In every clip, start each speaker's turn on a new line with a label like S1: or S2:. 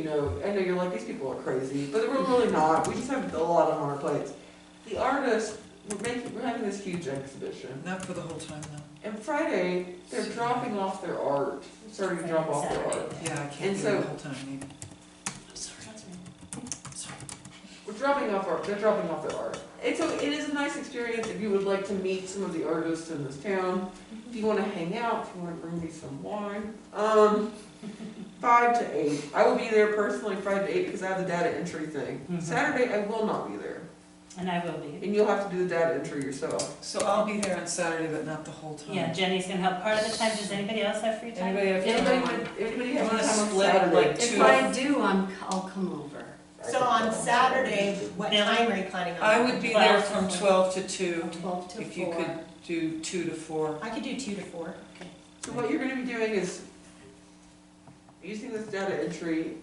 S1: know, I know you're like, these people are crazy, but we're really not. We just have a lot on our plates. The artists, we're making, we're having this huge exhibition.
S2: Not for the whole time though.
S1: And Friday, they're dropping off their art, starting to drop off their art.
S2: Yeah, I
S1: And
S2: can't do it
S1: so-
S2: the whole time either.
S3: I'm sorry.
S2: Sorry.
S1: We're dropping off our, they're dropping off their art. And so it is a nice experience if you would like to meet some of the artists in this town. If you wanna hang out, if you wanna bring me some wine. Um, five to eight. I will be there personally five to eight because I have the data entry thing.
S2: Mhm.
S1: Saturday, I will not be there.
S3: And I will be.
S1: And you'll have to do the data entry yourself.
S2: So I'll be there on Saturday, but not the whole time.
S3: Yeah, Jenny's gonna help part of the time. Does anybody else have free time?
S2: Anybody have
S1: Anybody,
S2: time?
S1: would- anybody
S2: You
S1: have time
S2: wanna
S1: on
S2: split it like
S1: Saturday?
S2: two?
S4: If I do, I'm, I'll come over.
S5: So on Saturday, what time are you planning on?
S2: I would be there from twelve to two,
S4: Twelve to
S2: if you
S4: four.
S2: could do two to four.
S5: I could do two to four.
S1: So what you're gonna be doing is using this data entry,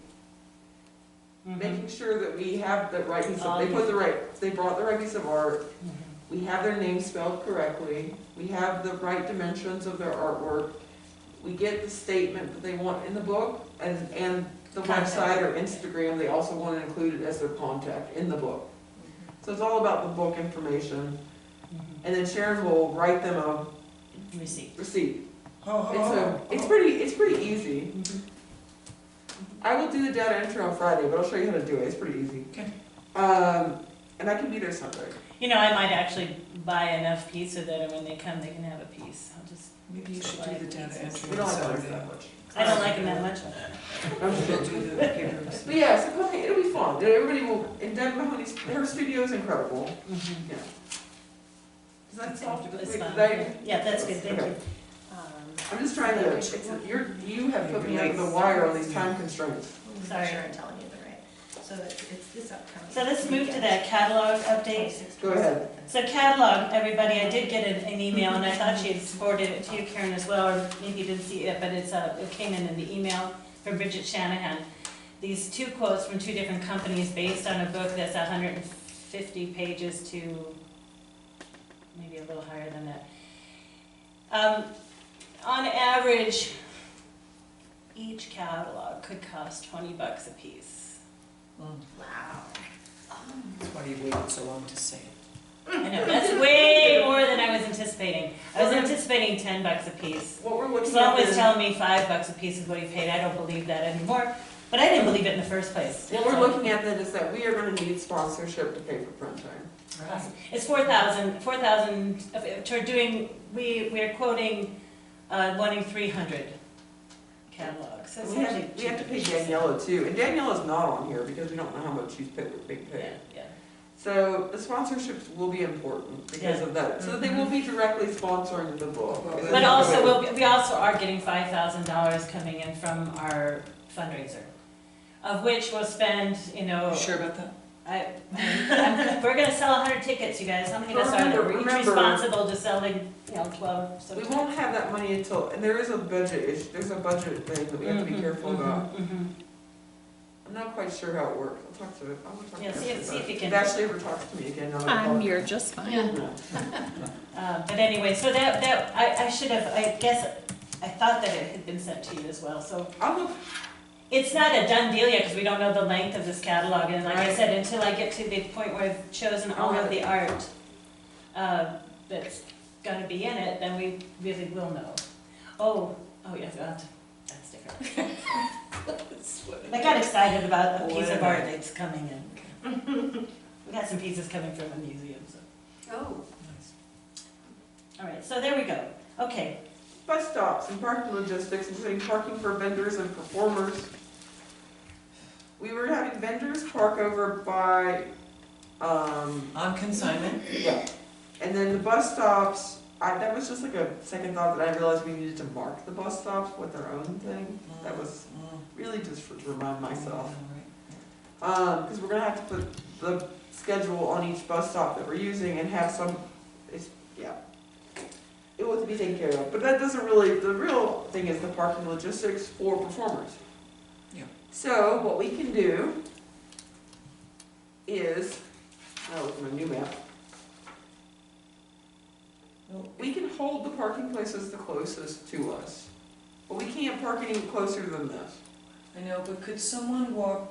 S3: Mhm.
S1: making sure that we have the right piece of,
S3: Oh,
S1: they put
S3: yeah.
S1: the right, they brought the right piece of art.
S3: mm-hmm,
S1: We have their name spelled correctly, we have the right dimensions of their artwork. We get the statement that they want in the book and, and the
S3: Contact.
S1: website or Instagram, they also want to include it as their contact in the book. So it's all about the book information
S3: Mhm.
S1: and then Sharon will write them a
S3: Receipt.
S1: receipt.
S2: Ho, ho,
S1: It's, a,
S2: ho.
S1: it's pretty, it's pretty easy. I will do the data entry on Friday, but I'll show you how to do it, it's pretty easy.
S2: Okay.
S1: Um, and I can be there Sunday.
S3: You know, I might actually buy enough pizza that when they come, they can have a piece. I'll just,
S2: Maybe you should do the data
S1: We
S2: entry
S1: don't
S2: on
S1: have to do
S2: Saturday.
S1: that much.
S3: I don't like them that much.
S1: I'm just
S2: We'll
S1: kidding.
S2: do the papers.
S1: But yeah, so come, it'll be fun, everybody will, and Deb Mahoney's, her studio is incredible,
S3: Mhm.
S1: yeah. Does that solve, wait,
S3: It's
S1: did
S3: fun.
S1: I,
S3: Yeah, that's good, thank you.
S1: Okay.
S5: Um,
S1: I'm just trying to, it's, a- you're, you have put me under the wire on these time constraints.
S5: I'm
S3: Sorry.
S5: not sure I'm telling you the right. So it's, it's this upcoming.
S3: So let's move to that catalog update.
S1: Go ahead.
S3: So catalog, everybody, I did get an, an email, and I thought she had forwarded it to you, Karen, as well, or maybe you didn't see it, but it's, uh, it came in in the email from Bridget Shanahan. These two quotes from two different companies based on a book that's hundred and fifty pages to maybe a little higher than that. Um, on average, each catalog could cost twenty bucks a piece.
S2: Mm,
S5: Wow.
S2: That's why you waited so long to say it.
S3: I know, that's way more than I was anticipating. I was anticipating ten bucks a piece.
S1: What we're looking
S3: Sloan
S1: at
S3: was
S1: is,
S3: telling me five bucks a piece is what he paid, I don't believe that anymore, but I didn't believe it in the first place.
S1: what we're looking at then is that we are gonna need sponsorship to pay for print time.
S2: Right.
S3: It's four thousand, four thousand, we're doing, we, we're quoting, uh, wanting three hundred catalogs, so it's
S1: We have,
S3: actually
S1: we have to pay
S3: cheaper.
S1: Daniela too, and Daniela's not on here because we don't know how much she's paid, being
S3: Yeah,
S1: paid.
S3: yeah.
S1: So the sponsorships will be important because of that, so they will be directly sponsoring the book.
S2: But
S3: Mm-hmm. But also, we'll, we also are getting five thousand dollars coming in from our fundraiser, of which we'll spend, you know,
S2: You sure about that?
S3: I, I'm- we're gonna sell hundred tickets, you guys, how many of us are there?
S1: Remember-
S3: We're each
S1: remember-
S3: responsible to selling, you know, twelve, so.
S1: We won't have that money until, and there is a budget issue, there's a budget thing that we have to be
S3: Mhm,
S1: careful
S3: mhm,
S1: about.
S3: mhm.
S1: I'm not quite sure how it works, I'll talk to, I'll talk to Ashley
S3: Yeah, see if- see if
S1: about
S3: you
S1: it.
S3: can-
S1: If Ashley ever talks to me again, I'll. I'll-
S4: just
S1: No.
S4: fine.
S3: Uh, but anyway, so that, that, I, I should have, I guess, I thought that it had been sent to you as well, so.
S1: I'll look,
S3: It's not a done deal yet, because we don't know the length of this catalog, and like I
S1: Right.
S3: said, until I get to the point where I've chosen all of the art uh, that's gonna be in it, then we really will know. Oh, oh yeah, that, that's different. I got excited about a piece of art that's coming in. We got some pieces coming from a museum, so,
S4: Oh,
S2: Nice.
S3: all right, so there we go, okay.
S1: bus stops and parking logistics, including parking for vendors and performers. We were having vendors park over by, um,
S2: On consignment,
S1: yeah, and then the bus stops, I, that was just like a second thought that I realized we needed to mark the bus stops with our own thing. That was
S2: Mm,
S1: really just for, to remind myself.
S2: all right.
S1: Um, cause we're gonna have to put the schedule on each bus stop that we're using and have some, it's, yeah. It will be taken care of, but that doesn't really, the real thing is the parking logistics for performers.
S2: Yeah.
S1: So what we can do is, oh, with my new map. We can hold the parking places the closest to us, but we can't park any closer than this.
S2: I I know, but could someone walk